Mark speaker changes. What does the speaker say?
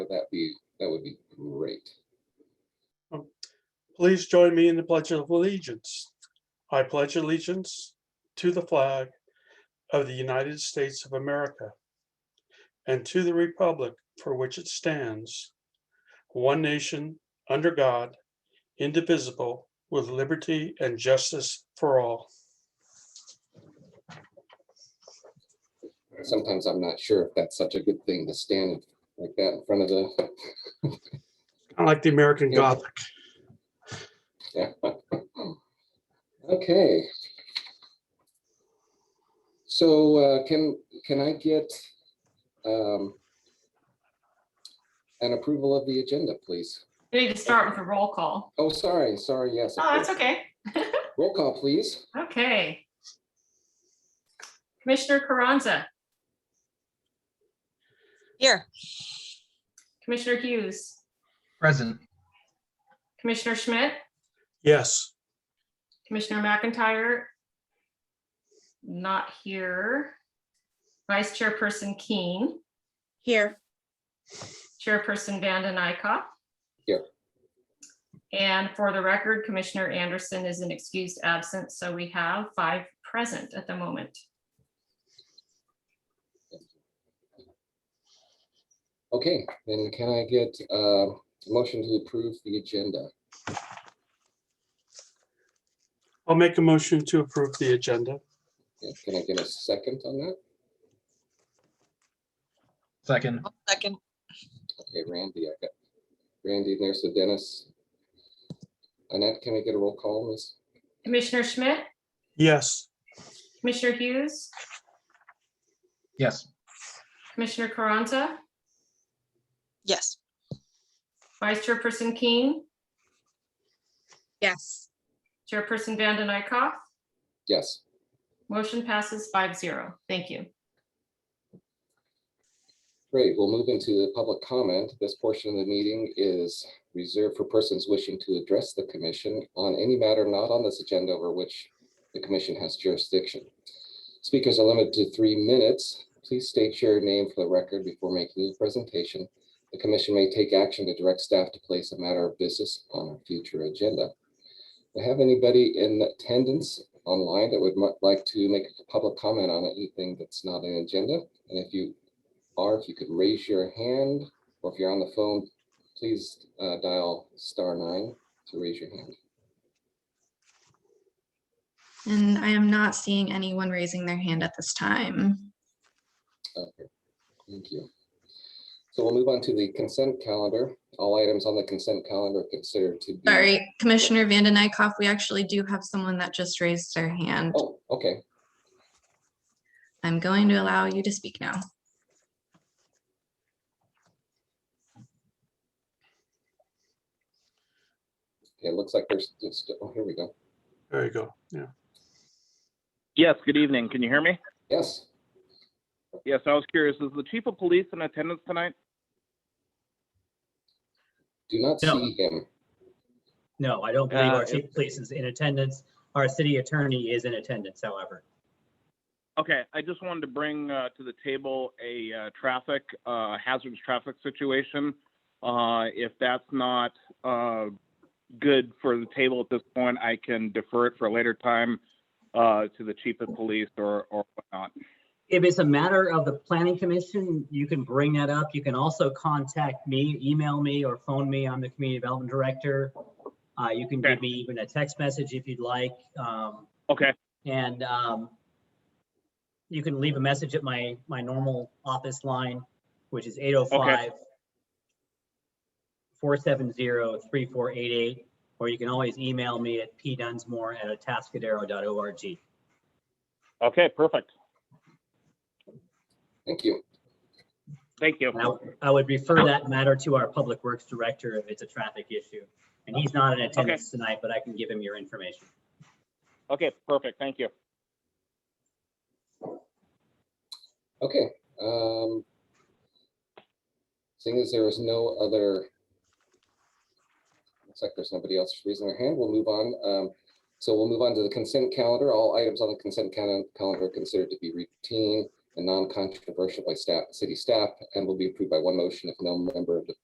Speaker 1: that'd be, that would be great.
Speaker 2: Please join me in the Pledge of Allegiance. I pledge allegiance to the flag of the United States of America and to the republic for which it stands, one nation, under God, indivisible, with liberty and justice for all.
Speaker 1: Sometimes I'm not sure if that's such a good thing to stand like that in front of the,
Speaker 2: I like the American
Speaker 1: Yeah.
Speaker 2: Gothic.
Speaker 1: Yeah. Okay. So uh, can, can I get um, an approval of the agenda, please?
Speaker 3: We need to start with a roll call.
Speaker 1: Oh, sorry, sorry, yes. of
Speaker 3: Oh, that's
Speaker 1: course.
Speaker 3: okay.
Speaker 1: Roll call, please.
Speaker 3: Okay. Commissioner Carranza,
Speaker 4: Here.
Speaker 3: Commissioner Hughes,
Speaker 5: Present.
Speaker 3: Commissioner Schmidt,
Speaker 2: Yes,
Speaker 3: Commissioner McIntyre. Not here. Vice Chairperson Keen,
Speaker 4: Here.
Speaker 3: Chairperson Vanden Eyck.
Speaker 1: Here.
Speaker 3: And for the record, Commissioner Anderson is an excused absence, so we have five present at the moment.
Speaker 1: Okay, then can I get uh, a motion to approve the agenda?
Speaker 2: I'll make a motion to approve the agenda.
Speaker 1: Yeah, Can I get a second on that?
Speaker 5: Second.
Speaker 4: Second.
Speaker 1: Okay, Randy, I got Randy in there, so Dennis. Annette, can I get a roll call, Miss?
Speaker 3: Commissioner Schmidt,
Speaker 2: Yes,
Speaker 3: Commissioner Hughes,
Speaker 5: Yes.
Speaker 3: Commissioner Carranza,
Speaker 4: Yes.
Speaker 3: Vice Chairperson Keen,
Speaker 4: Yes.
Speaker 3: Chairperson Vanden Eyck.
Speaker 1: Yes.
Speaker 3: Motion passes five zero. Thank you.
Speaker 1: Great, we'll move into the public comment. This portion of the meeting is reserved for persons wishing to address the commission on any matter not on this agenda over which the commission has jurisdiction. Speakers are limited to three minutes. Please state your name for the record before making your presentation. The commission may take action to direct staff to place a matter of business on a future agenda. Do I have anybody in attendance online that would mu- like to make a public comment on anything that's not an agenda? And if you or if you could raise your hand, or if you're on the phone, please uh, dial star nine to raise your hand.
Speaker 6: And I am not seeing anyone raising their hand at this time.
Speaker 1: Okay, thank you. So we'll move on to the consent calendar. All items on the consent calendar are considered to be.
Speaker 6: Sorry, Commissioner Vanden Eyck, we actually do have someone that just raised their hand.
Speaker 1: Oh, okay.
Speaker 6: I'm going to allow you to speak now.
Speaker 1: Okay, It looks like there's, just- oh, here we go.
Speaker 2: there you go. Yeah.
Speaker 7: Yes, good evening. Can you hear me?
Speaker 1: Yes,
Speaker 7: Yes, I was curious. Is the chief of police in attendance tonight?
Speaker 1: do not
Speaker 8: No.
Speaker 1: see him.
Speaker 8: No, I don't believe
Speaker 7: Uh,
Speaker 8: our chief of police is in attendance. Our city attorney is in attendance, however.
Speaker 7: Okay, I just wanted to bring uh, to the table a uh, traffic, uh, hazardous traffic situation. Uh, If that's not uh, good for the table at this point, I can defer it for a later time uh, to the chief of police or or whatnot.
Speaker 8: If it's a matter of the planning commission, you can bring that up. You can also contact me, email me or phone me. I'm the community development director. Uh, you can
Speaker 7: Okay.
Speaker 8: give me even a text message if you'd like. Um,
Speaker 7: Okay,
Speaker 8: and, um, you can leave a message at my, my normal office line, which is 805 470 3488, or you can always email me at pdunsmore@atascadero.org.
Speaker 7: okay, perfect.
Speaker 1: Thank you.
Speaker 7: Thank you.
Speaker 8: And I would- I would refer that matter to our Public Works Director if it's a traffic issue. And he's not in attendance tonight, but I can give him your information.
Speaker 7: Okay, perfect. Thank you.
Speaker 1: Okay. um, Seeing as there is no other. Looks like there's nobody else raising their hand. We'll move on. Um, So we'll move on to the consent calendar. All items on the consent cal- calendar are considered to be routine and non-controversial by staff, city staff, and will be approved by one motion if no member of the